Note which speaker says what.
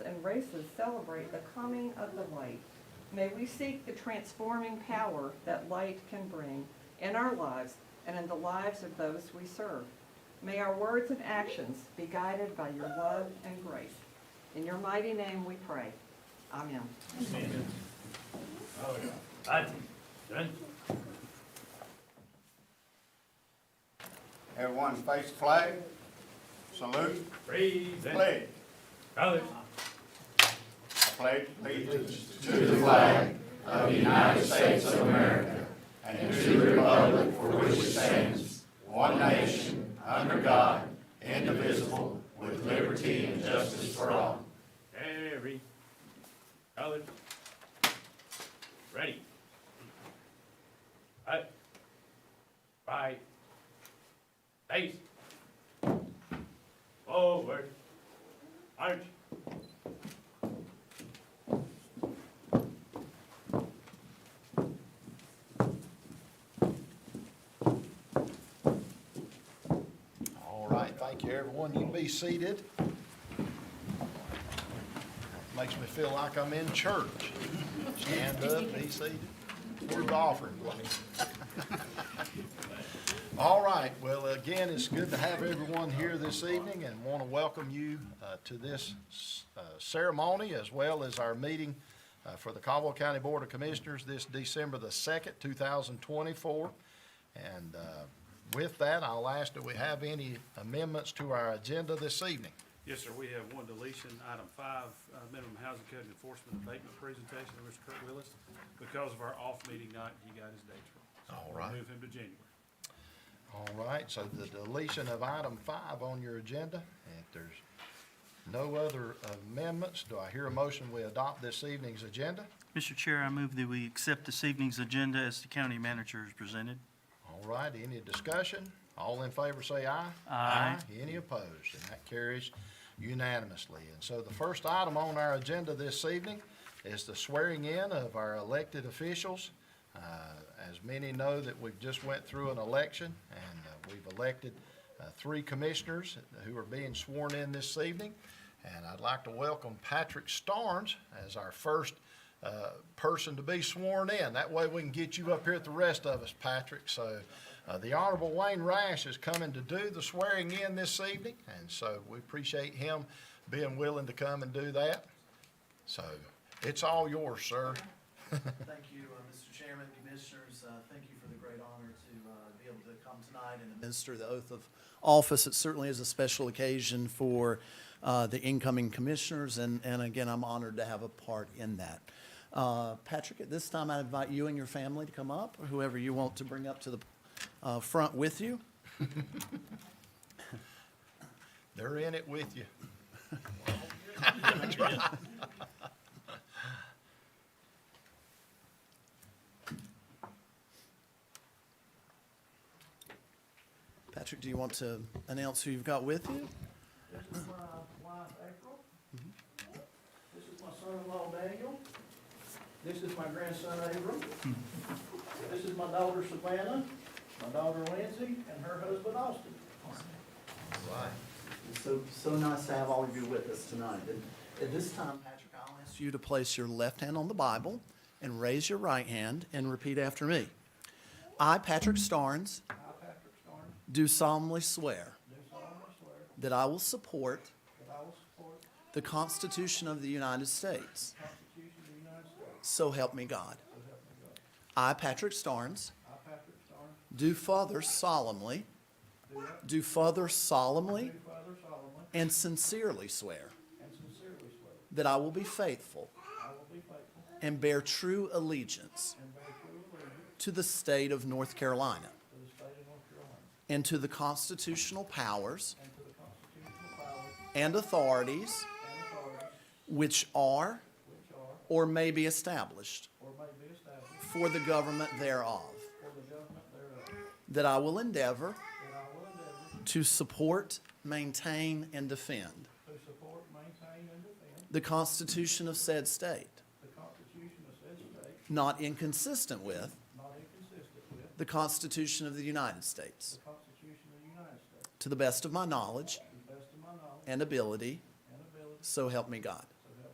Speaker 1: and races celebrate the coming of the light. May we seek the transforming power that light can bring in our lives and in the lives of those we serve. May our words and actions be guided by your love and grace. In your mighty name we pray. Amen.
Speaker 2: Aye. Done?
Speaker 3: Everyone face the flag, salute,
Speaker 2: Praise and
Speaker 3: pledge.
Speaker 2: Colors.
Speaker 3: I pledge allegiance
Speaker 2: Every. Colors. Ready. Aye. Right. Face. Forward. March.
Speaker 4: All right, thank you, everyone. You be seated. Makes me feel like I'm in church. Stand up, be seated. Where's the offering plate? All right, well, again, it's good to have everyone here this evening and want to welcome you uh, to this uh, ceremony as well as our meeting uh, for the Caldwell County Board of Commissioners this December the 2nd, 2024. And uh, with that, I'll ask, do we have any amendments to our agenda this evening?
Speaker 5: Yes, sir, we have one deletion, item five, uh, minimum housing code enforcement abatement presentation, of Mr. Kurt Willis. Because of our off meeting night, he got his dates wrong. So
Speaker 4: All
Speaker 5: we'll
Speaker 4: right.
Speaker 5: Move him to January.
Speaker 4: All right, so the deletion of item five on your agenda, if there's no other amendments, do I hear a motion we adopt this evening's agenda?
Speaker 6: Mr. Chair, I move that we accept this evening's agenda as the county manager is presented.
Speaker 4: All right, any discussion? All in favor say aye.
Speaker 6: Aye.
Speaker 4: Any opposed? And that carries unanimously. And so the first item on our agenda this evening is the swearing in of our elected officials. Uh, As many know that we've just went through an election, and uh, we've elected uh, three commissioners who are being sworn in this evening. And I'd like to welcome Patrick Starnes as our first uh, person to be sworn in. That way we can get you up here with the rest of us, Patrick. So uh, the Honorable Wayne Rash is coming to do the swearing in this evening, and so we appreciate him being willing to come and do that. So it's all yours, sir.
Speaker 7: Thank you, uh, Mr. Chairman, Commissioners. Uh, Thank you for the great honor to uh, be able to come tonight and administer the oath of office. It certainly is a special occasion for uh, the incoming commissioners, and and again, I'm honored to have a part in that. Uh, Patrick, at this time, I invite you and your family to come up, or whoever you want to bring up to the uh, front with you.
Speaker 4: They're in it with you.
Speaker 7: Patrick, do you want to announce who you've got with you?
Speaker 8: This is my wife, April. This is my son-in-law, Daniel. This is my grandson, Abram. This is my daughter, Savannah, my daughter, Lindsay, and her husband, Austin.
Speaker 7: It's so, so nice to have all of you with us tonight. And at this time, Patrick, I'll ask you to place your left hand on the Bible and raise your right hand and repeat after me. I, Patrick Starnes,
Speaker 8: I, Patrick Starnes,
Speaker 7: do solemnly swear
Speaker 8: do solemnly swear
Speaker 7: that I will support
Speaker 8: that I will support the
Speaker 7: the Constitution of the United States.
Speaker 8: Constitution of the United States.
Speaker 7: So help me God.
Speaker 8: So help me God.
Speaker 7: I, Patrick Starnes,
Speaker 8: I, Patrick Starnes,
Speaker 7: do further solemnly,
Speaker 8: do that-
Speaker 7: do further
Speaker 8: do
Speaker 7: solemnly
Speaker 8: further solemnly
Speaker 7: and sincerely swear
Speaker 8: and sincerely swear
Speaker 7: that I will be faithful
Speaker 8: I will be faithful
Speaker 7: and bear true allegiance
Speaker 8: and bear true allegiance
Speaker 7: to the state of North Carolina
Speaker 8: to the state of North Carolina
Speaker 7: and to the constitutional powers
Speaker 8: and to the constitutional powers
Speaker 7: and authorities
Speaker 8: and authorities
Speaker 7: which are
Speaker 8: which are
Speaker 7: or may be established
Speaker 8: or may be established
Speaker 7: for the government thereof,
Speaker 8: for the government thereof,
Speaker 7: that I will endeavor
Speaker 8: that I will endeavor
Speaker 7: to support, maintain, and defend
Speaker 8: To support, maintain, and defend
Speaker 7: the Constitution of said state,
Speaker 8: the Constitution of said state,
Speaker 7: not inconsistent with
Speaker 8: not inconsistent with
Speaker 7: the Constitution of the United States,
Speaker 8: the Constitution of the United States,
Speaker 7: to the best of my knowledge
Speaker 8: to the best of my knowledge
Speaker 7: and ability,
Speaker 8: and ability,
Speaker 7: so help me God.